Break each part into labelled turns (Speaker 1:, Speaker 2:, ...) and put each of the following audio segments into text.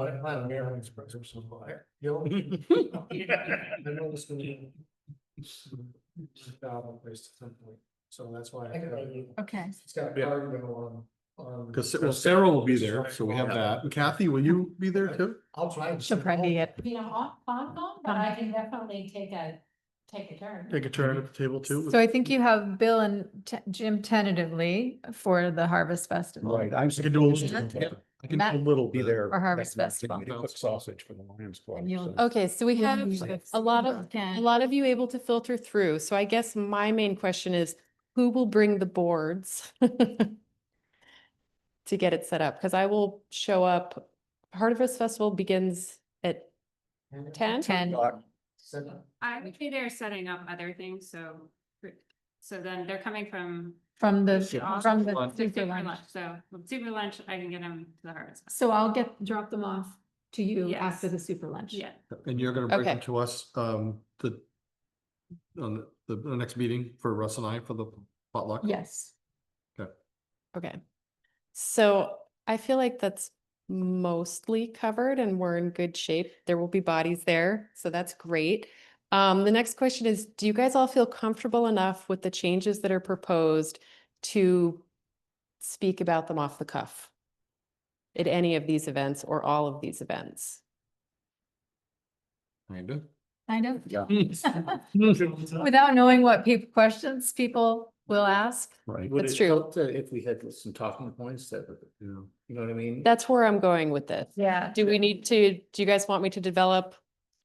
Speaker 1: I don't have an airline express or something like that, you know? I know this will be. Down place at some point, so that's why. I
Speaker 2: Okay.
Speaker 1: It's got a
Speaker 3: Yeah.
Speaker 1: cargo on, on.
Speaker 3: Because well, Sarah will be there, so we have that. And Kathy, will you be there too?
Speaker 1: I'll try. and-
Speaker 2: She'll probably be at
Speaker 4: You know, off, on, on, but I can definitely take a, take a turn.
Speaker 3: Take a turn at the table too.
Speaker 2: So I think you have Bill and T- Jim tentatively for the Harvest Festival.
Speaker 5: Right, I'm.
Speaker 3: I can do a little.
Speaker 2: Matt-
Speaker 3: yeah, I can do
Speaker 2: Matt-
Speaker 3: a little
Speaker 5: Be
Speaker 3: bit.
Speaker 5: there.
Speaker 2: Or Harvest
Speaker 5: next
Speaker 2: Festival.
Speaker 5: Monday to cook Sausage for the Lions Club.
Speaker 2: And you'll-
Speaker 5: so-
Speaker 6: Okay, so we
Speaker 2: Yeah,
Speaker 6: have
Speaker 2: usually it's-
Speaker 6: a lot of,
Speaker 2: Okay.
Speaker 6: a lot of you able to filter through. So I guess my main question is, who will bring the boards? To get it set up, because I will show up, Harvest Festival begins at ten?
Speaker 2: Ten.
Speaker 1: Seven.
Speaker 7: I would be there setting up other things, so, so then they're coming from.
Speaker 2: From the,
Speaker 7: Yeah.
Speaker 2: from the
Speaker 7: the
Speaker 2: super
Speaker 7: super
Speaker 2: lunch.
Speaker 7: So with super lunch, I can get them to the harvest.
Speaker 6: So I'll get, drop them off to you
Speaker 7: after the
Speaker 6: super lunch.
Speaker 7: Yeah,
Speaker 3: And you're gonna bring them
Speaker 6: Okay.
Speaker 3: to us, um, the on the, the next meeting for Russ and I for the potluck?
Speaker 6: Yes.
Speaker 3: Okay.
Speaker 6: Okay. So I feel like that's mostly covered and we're in good shape. There will be bodies there, so that's great. Um, the next question is, do you guys all feel comfortable enough with the changes that are proposed to speak about them off the cuff? At any of these events or all of these events?
Speaker 3: Kinda.
Speaker 2: Kind of.
Speaker 5: Yeah.
Speaker 2: Without knowing what peop questions people will ask.
Speaker 3: Right.
Speaker 5: Would
Speaker 6: That's
Speaker 5: it
Speaker 6: true.
Speaker 5: help to- If we had some talking points that, would- you know what I mean?
Speaker 6: That's where I'm going with this.
Speaker 2: Yeah.
Speaker 6: Do we need to, do you guys want me to develop?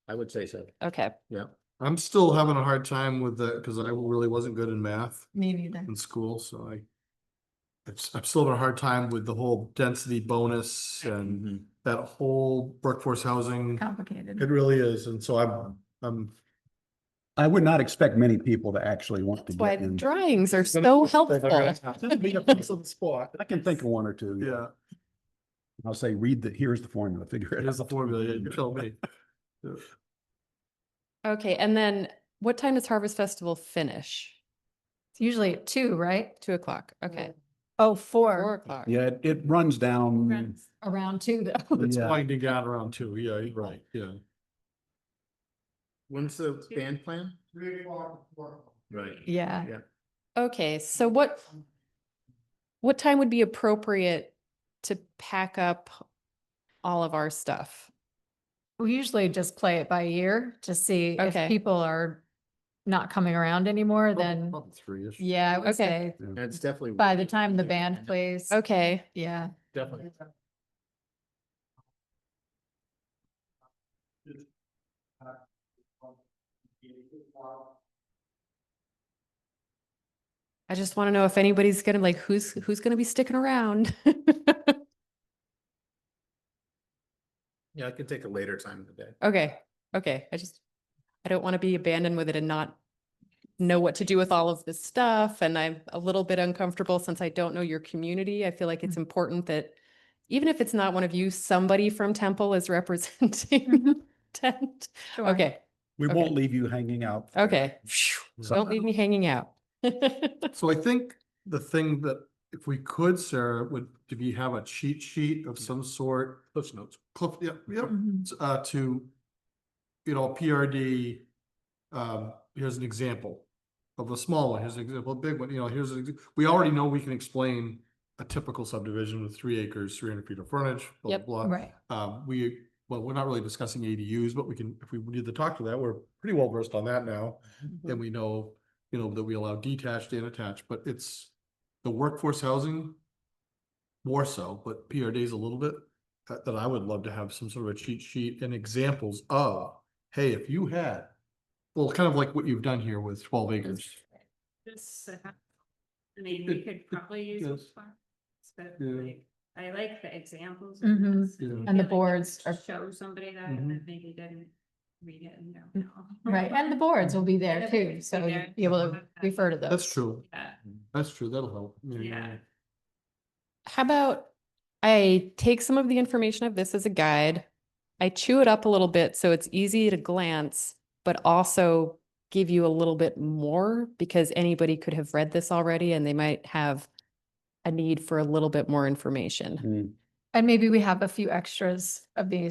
Speaker 5: I would say so.
Speaker 6: Okay.
Speaker 3: I'm still having a hard time with the, because I really wasn't good in math
Speaker 2: Me neither.
Speaker 3: in school, so I it's, I'm still having a hard time with the whole density bonus and that whole workforce housing. It
Speaker 2: Complicated.
Speaker 3: really is, and so I'm, I'm
Speaker 8: I would not expect many people to actually want to
Speaker 6: That's why
Speaker 8: get
Speaker 6: the
Speaker 8: in.
Speaker 6: drawings are so helpful.
Speaker 8: I can think of one or two.
Speaker 3: Yeah,
Speaker 8: I'll say, read the, here's the formula, figure it out.
Speaker 3: it is the formula, yeah, you tell me.
Speaker 6: Okay, and then what time does Harvest Festival finish?
Speaker 2: It's usually at two, right?
Speaker 6: Two o'clock, okay.
Speaker 2: Oh,
Speaker 6: Four
Speaker 2: four,
Speaker 6: o'clock.
Speaker 8: Yeah, it- it runs down.
Speaker 3: Mm.
Speaker 7: friends.
Speaker 2: around two though.
Speaker 3: It's
Speaker 8: Yeah.
Speaker 3: winding down around two, yeah, you're right, yeah.
Speaker 5: When's the band plan?
Speaker 1: Three o'clock, four o'clock.
Speaker 5: Right.
Speaker 2: Yeah.
Speaker 6: Okay, so what, what time would be appropriate to pack up all of our stuff?
Speaker 2: We usually just play it by ear to see
Speaker 6: Okay.
Speaker 2: if people are not coming around anymore, then,
Speaker 3: Three-ish.
Speaker 2: yeah, I would
Speaker 6: Okay.
Speaker 2: say
Speaker 5: That's definitely.
Speaker 2: by the time the band plays.
Speaker 6: Okay,
Speaker 2: Yeah.
Speaker 5: Definitely.
Speaker 6: I just want to know if anybody's gonna like, who's, who's gonna be sticking around?
Speaker 5: Yeah, I could take a later time of the day.
Speaker 6: Okay, okay, I just, I don't want to be abandoned with it and not know what to do with all of this stuff, and I'm a little bit uncomfortable since I don't know your community. I feel like it's important that even if it's not one of you, somebody from Temple is representing Tent.
Speaker 2: sure.
Speaker 6: Okay,
Speaker 8: We
Speaker 6: Okay.
Speaker 8: won't leave you hanging out. for
Speaker 6: okay. Phew, Don't
Speaker 8: something.
Speaker 6: leave me hanging out.
Speaker 3: So I think the thing that if we could, Sarah, would, if you have a cheat sheet of some sort. Cliff notes. Cliff, yeah, yeah,
Speaker 2: Mhm.
Speaker 3: t- uh, to, you know, PRD, um, here's an example of a small one, here's an example, a big one, you know, here's, an ex- we already know we can explain a typical subdivision with three acres, three hundred feet of frontage, blah,
Speaker 6: Yep.
Speaker 3: blah, blah.
Speaker 2: Right.
Speaker 3: Um, we, well, we're not really discussing ADUs, but we can, if we need to talk to that, we're pretty well versed on that now. And we know, you know, that we allow detached and attached, but it's the workforce housing. More so, but PRDs a little bit, uh, that, that I would love to have some sort of a cheat sheet and examples of, hey, if you had. Well, kind of like what you've done here with twelve acres.
Speaker 7: This, uh, I mean, we
Speaker 3: It-
Speaker 7: could probably use.
Speaker 3: yes.
Speaker 7: this one, But
Speaker 3: Yeah.
Speaker 7: like, I like the examples. of
Speaker 2: Mhm.
Speaker 7: this. I
Speaker 3: Yeah.
Speaker 2: And
Speaker 7: feel
Speaker 2: the
Speaker 7: like
Speaker 2: boards
Speaker 7: I
Speaker 2: are-
Speaker 7: could Show somebody that and
Speaker 3: Mhm.
Speaker 7: then maybe didn't read it and don't know.
Speaker 2: Right, and the boards will be there
Speaker 7: Yeah,
Speaker 2: too,
Speaker 7: they'll
Speaker 2: so
Speaker 7: be
Speaker 2: you'll
Speaker 7: there.
Speaker 2: be able to refer to those.
Speaker 3: That's true,
Speaker 7: Yeah,
Speaker 3: that's true, that'll help.
Speaker 7: yeah.
Speaker 6: How about I take some of the information of this as a guide? I chew it up a little bit so it's easy to glance, but also give you a little bit more because anybody could have read this already and they might have a need for a little bit more information.
Speaker 8: Hmm.
Speaker 2: And maybe we have a few extras of these